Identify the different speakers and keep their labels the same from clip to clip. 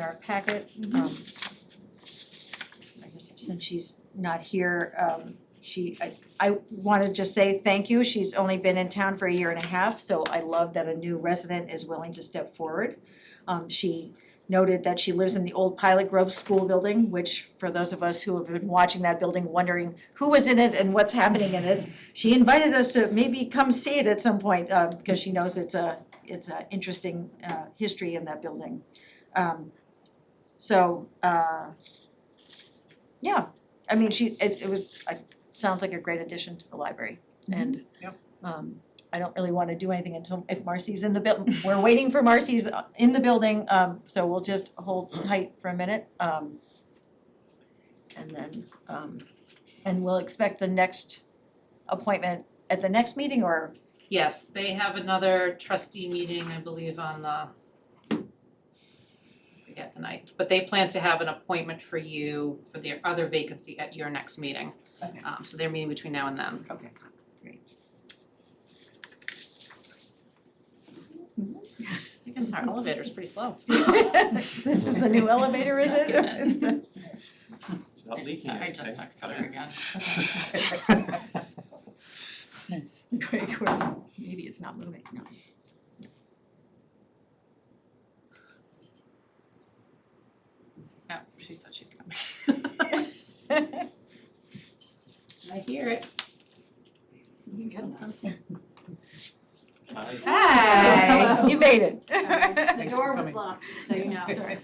Speaker 1: our packet, um. I guess since she's not here, um, she, I, I wanna just say thank you, she's only been in town for a year and a half, so I love that a new resident is willing to step forward. Um, she noted that she lives in the old Pilot Grove School Building, which for those of us who have been watching that building, wondering who was in it and what's happening in it, she invited us to maybe come see it at some point, uh, because she knows it's a, it's a interesting, uh, history in that building. Um, so, uh, yeah, I mean, she, it, it was, I, sounds like a great addition to the library and,
Speaker 2: Yep.
Speaker 1: um, I don't really wanna do anything until, if Marcy's in the buil, we're waiting for Marcy's uh, in the building, um, so we'll just hold tight for a minute, um, and then, um, and we'll expect the next appointment at the next meeting or,
Speaker 2: Yes, they have another trustee meeting, I believe, on the I forget the night, but they plan to have an appointment for you for their other vacancy at your next meeting.
Speaker 1: Okay.
Speaker 2: Um so they're meeting between now and then.
Speaker 1: okay.
Speaker 2: I guess our elevator's pretty slow.
Speaker 1: This is the new elevator, is it?
Speaker 2: Document. I just-
Speaker 3: It's not leaking
Speaker 2: I
Speaker 3: anything.
Speaker 2: just took color again.
Speaker 1: Great, of course, maybe it's not moving, no.
Speaker 2: Oh, she said she's coming. I hear it.
Speaker 1: You got this.
Speaker 3: Hi.
Speaker 2: Hi.
Speaker 1: You made it.
Speaker 4: The
Speaker 2: Thanks for
Speaker 4: door was
Speaker 2: coming.
Speaker 4: locked, so you know.
Speaker 1: Sorry.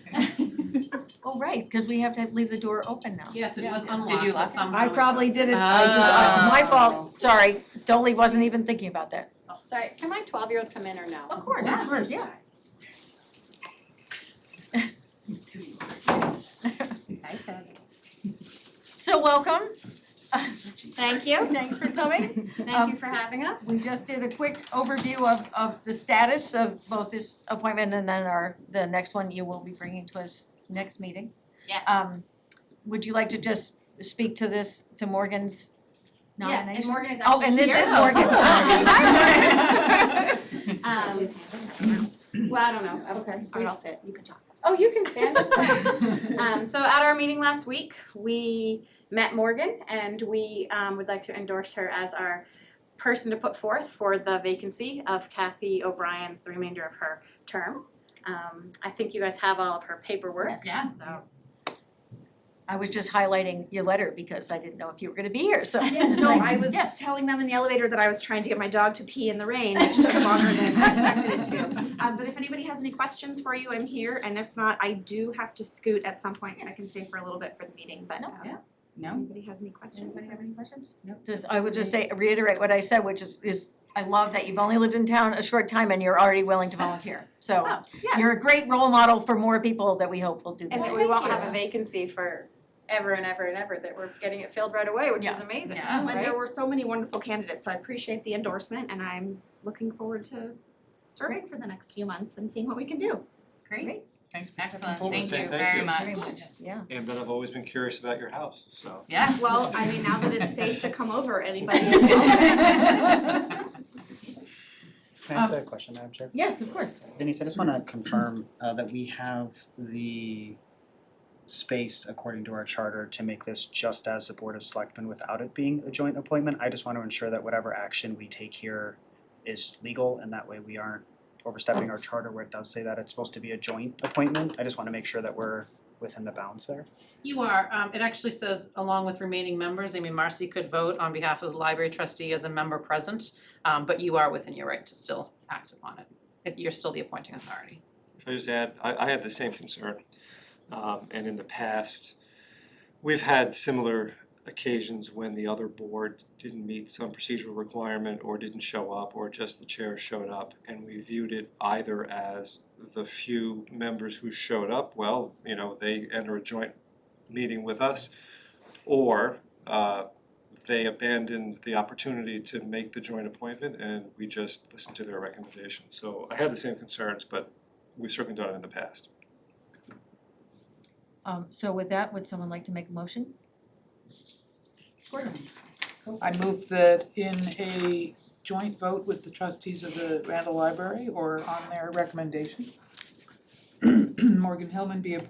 Speaker 1: Oh, right, because we have to leave the door open now.
Speaker 2: Yes, it was
Speaker 4: Yeah.
Speaker 2: unlocked,
Speaker 4: Did you
Speaker 2: but somehow.
Speaker 1: I
Speaker 2: it-
Speaker 1: probably did it, I just, I- my
Speaker 2: Oh.
Speaker 1: fault, sorry, Dolly wasn't even thinking about that.
Speaker 4: Sorry, can my twelve-year-old come in or no?
Speaker 1: course, of course, yeah.
Speaker 2: I said.
Speaker 1: So welcome,
Speaker 4: Thank you,
Speaker 1: thanks for coming.
Speaker 4: thank you for having us.
Speaker 1: We just did a quick overview of, of the status of both this appointment and then our, the next one you will be bringing to us next meeting.
Speaker 4: Yes.
Speaker 1: Um, would you like to just speak to this, to Morgan's
Speaker 4: Yes,
Speaker 1: nomination?
Speaker 4: and Morgan is actually here.
Speaker 1: Oh, and this is Morgan. Hi, Morgan.
Speaker 2: Oh.
Speaker 4: Um, well, I don't know, okay, all right, I'll sit, you can talk. Oh, you can stand, That's fine.
Speaker 2: Thank
Speaker 4: Um, so at our meeting last week, we met Morgan and we, um, would like to endorse her as our person to put forth for the vacancy of Kathy O'Brien's, the remainder of her term. Um, I think you guys have all of her paperwork,
Speaker 1: Yes.
Speaker 2: Yeah.
Speaker 4: so.
Speaker 1: I was just highlighting your letter because I didn't know if you were gonna be here, so.
Speaker 5: Yeah, no, I was
Speaker 1: Yes.
Speaker 5: telling them in the elevator that I was trying to get my dog to pee in the rain, which took longer than I expected it to. Um, but if anybody has any questions for you, I'm here, and if not, I do have to scoot at some point, and I can stay for a little bit for the meeting, but
Speaker 1: No,
Speaker 5: um,
Speaker 2: yeah. No.
Speaker 5: if anybody has any questions?
Speaker 1: Anybody have any questions?
Speaker 2: No.
Speaker 1: Just, I would just say, reiterate what I said, which is, is I love that you've only lived in town a short time and you're already willing to volunteer. So
Speaker 5: Oh, yes.
Speaker 1: you're a great role model for more people that we hope will do
Speaker 4: And
Speaker 1: this.
Speaker 4: that we won't have a vacancy for ever and ever and ever, that we're getting it filled right away, which is
Speaker 1: Yeah.
Speaker 4: amazing.
Speaker 2: Yeah.
Speaker 5: Oh, And there
Speaker 4: Right?
Speaker 5: were so many wonderful candidates, so I appreciate the endorsement, and I'm looking forward to serving for the next few months and seeing what we can do.
Speaker 1: Great.
Speaker 2: Thanks for
Speaker 3: Excellent. Thank Thank you you. very much.
Speaker 1: Very much, yeah.
Speaker 3: And but I've always been curious about your house, so.
Speaker 2: Yeah.
Speaker 5: Well, I mean, now that it's safe to come over, anybody is welcome.
Speaker 2: Well,
Speaker 6: Can I ask a question, Madam Chair?
Speaker 1: Yes, of course.
Speaker 6: Denise, I just wanna confirm uh that we have the space according to our charter to make this just as the Board of Selectmen without it being a joint appointment. I just wanna ensure that whatever action we take here is legal and that way we aren't overstepping our charter where it does say that it's supposed to be a joint appointment. I just wanna make sure that we're within the bounds there.
Speaker 2: You are, um, it actually says along with remaining members, I mean, Marcy could vote on behalf of the library trustee as a member present, um, but you are within your right to still act upon it. If you're still the appointing authority.
Speaker 3: Can I just add, I, I had the same concern. Um, and in the past, we've had similar occasions when the other board didn't meet some procedural requirement or didn't show up, or just the chair showed up. And we viewed it either as the few members who showed up, well, you know, they enter a joint meeting with us, or, uh, they abandoned the opportunity to make the joint appointment and we just listened to their recommendations. So I had the same concerns, but we've certainly done it in the past.
Speaker 1: Um, so with that, would someone like to make a motion?
Speaker 7: I move that in a joint vote with the trustees of the Randall Library or on their recommendation, Morgan Hillman be appointed